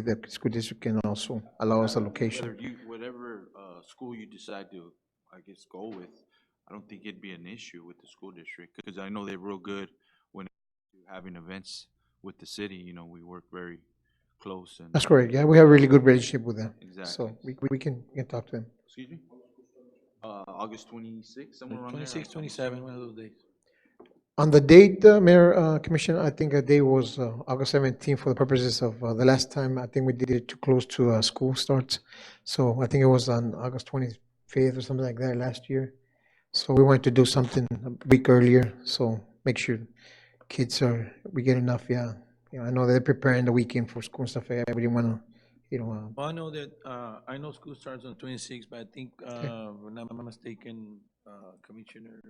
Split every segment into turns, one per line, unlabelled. the school district can also allow us allocation.
Whether you, whatever, uh, school you decide to, I guess, go with, I don't think it'd be an issue with the school district, because I know they're real good when having events with the city, you know, we work very close and.
That's correct, yeah, we have a really good relationship with them.
Exactly.
So we, we- we can, we can talk to them.
Excuse me? Uh, August twenty-sixth, somewhere around there?
26, 27, one of those days.
On the date, uh, Mayor, uh, Commissioner, I think a day was uh, August 17th for the purposes of uh, the last time, I think we did it too close to uh, school starts. So I think it was on August 25th or something like that last year. So we wanted to do something a week earlier, so make sure kids are, we get enough, yeah. You know, I know they're preparing the weekend for school and stuff, I didn't want to, you know, uh,
Well, I know that, uh, I know school starts on 26, but I think, uh, if I'm not mistaken, uh, Commissioner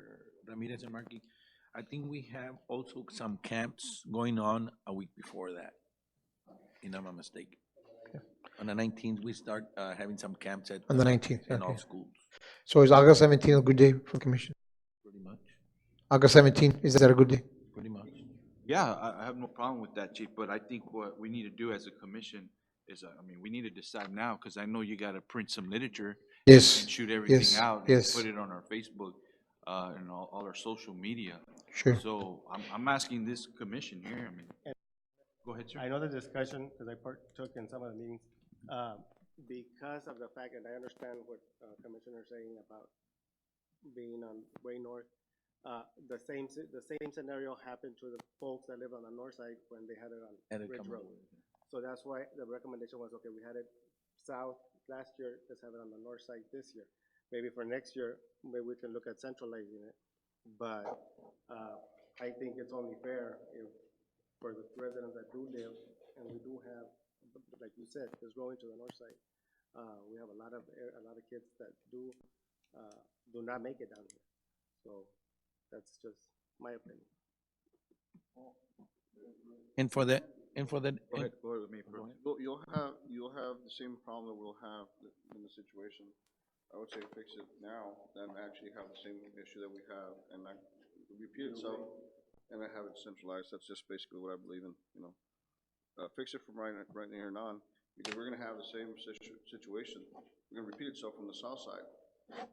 Ramirez and Markey, I think we have also some camps going on a week before that, if I'm not mistaken. On the 19th, we start uh, having some camps at,
on the 19th.
in all
Okay.
schools,
So is August 17th a good day for commission?
pretty much,
August 17th, is that a good day?
pretty much.
Yeah, I, I have no problem with that, chief, but I think what we need to do as a commission is, uh, I mean, we need to decide now, because I know you gotta print some literature
Yes,
and shoot everything
Yes,
out and
yes.
put it on our Facebook, uh, and all, all our social media.
sure.
So I'm, I'm asking this commission here, I mean, go ahead,
I
sir.
know the discussion, because I partook in some of the meetings, uh, because of the fact, and I understand what uh, Commissioner's saying about being on way north, uh, the same, s- the same scenario happened to the folks that live on the north side when they had it
And
on
it
Ridge
come
Road. So that's why the recommendation was, okay, we had it south last year, let's have it on the north side this year. Maybe for next year, maybe we can look at centralizing it, but, uh, I think it's only fair if, for the residents that do live, and we do have, like you said, it's growing to the north side. Uh, we have a lot of, air- a lot of kids that do, uh, do not make it down here. So that's just my opinion.
And for the, and for the,
Go ahead, go ahead with me first.
You'll, you'll have, you'll have the same problem that we'll have in the situation. I would say fix it now, than actually have the same issue that we have, and like, repeat itself, and I have it centralized, that's just basically what I believe in, you know. Uh, fix it from right, right here and on, because we're gonna have the same situ- situation, we're gonna repeat itself from the south side,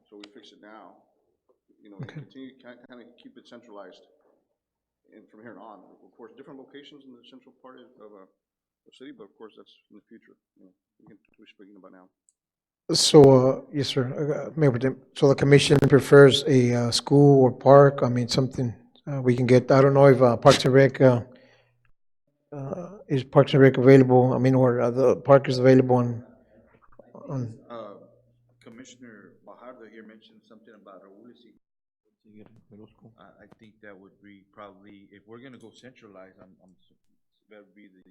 so we fix it now. You know, and continue, kind, kind of keep it centralized, and from here on, of course, different locations in the central part of, of, uh, the city, but of course, that's in the future, you know, we can, we're speaking about now.
So, uh, yes, sir, Uh, Mayor Pro Tem, so the commission prefers a uh, school or park, I mean, something uh, we can get, I don't know if uh, Parks and Rec, uh, uh, is Parks and Rec available, I mean, or uh, the park is available on, on,
Uh, Commissioner Bajardo here mentioned something about Raúl y I, I think that would be probably, if we're gonna go centralized, I'm, I'm, s- that'd be the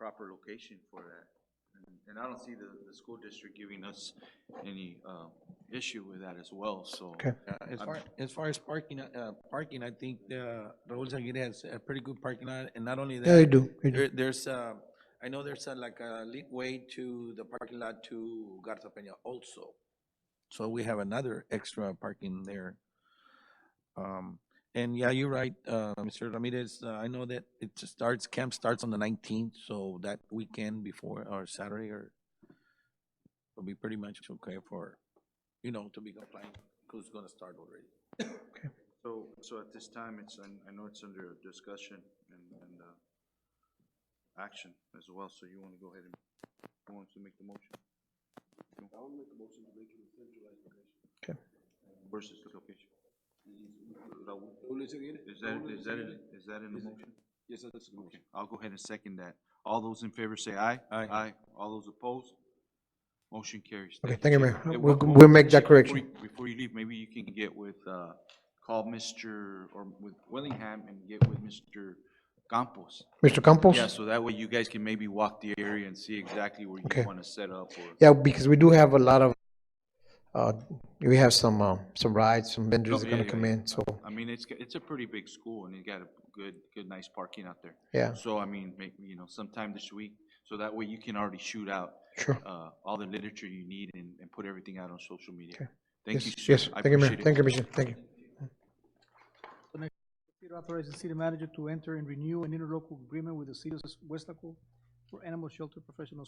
proper location for that. And- And I don't see the, the school district giving us any, uh, issue with that as well, so.
Okay.
Uh, As far, as far as parking, uh, parking, I think, uh, Raul Aguirre has a pretty good parking lot, and not only that.
yeah, you do, you do.
There, there's, uh, I know there's a, like a leeway to the parking lot to Garza Peña also. So we have another extra parking there. Um, and yeah, you're right, uh, Mr. Ramirez, uh, I know that it starts, camp starts on the nineteenth, so that weekend before, or Saturday, or will be pretty much okay for, you know, to be compliant, who's gonna start already.
So, so at this time, it's, un- I know it's under discussion and, and, uh, action as well, so you wanna go ahead and, who wants to make the motion? I will make the motion to make it a centralized location.
Okay.
Versus the location. Raul, Is that, is that, is that in the motion? Yes, that's the motion. I'll go ahead and second that. All those in favor say aye.
Aye.
Aye. All those opposed? Motion carries.
Okay, thank you, Mayor.
Hey,
We'll,
one-
we'll make that
before you-
correction.
Before you leave, maybe you can get with, uh, call Mr., or with Willingham and get with Mr. Campos.
Mr. Campos?
Yeah, so that way you guys can maybe walk the area and see exactly where you
Okay.
want to set up or.
Yeah, because we do have a lot of, uh, we have some, um, some rides, some vendors that are
Oh,
gonna
yeah, yeah,
come in, so,
I mean, it's, it's a pretty big school and you got a good, good, nice parking out there.
yeah,
So I mean, make, you know, sometime this week, so that way you can already shoot out,
sure.
uh, all the literature you need and, and put everything out on social media.
Okay.
Thank you,
Yes, Yes,
sir. I
thank you, Mayor.
appreciate it.
Thank you, Commissioner, thank you.
It authorizes the city manager to enter and renew an interlocal agreement with the city of West Laco
for animal shelter professional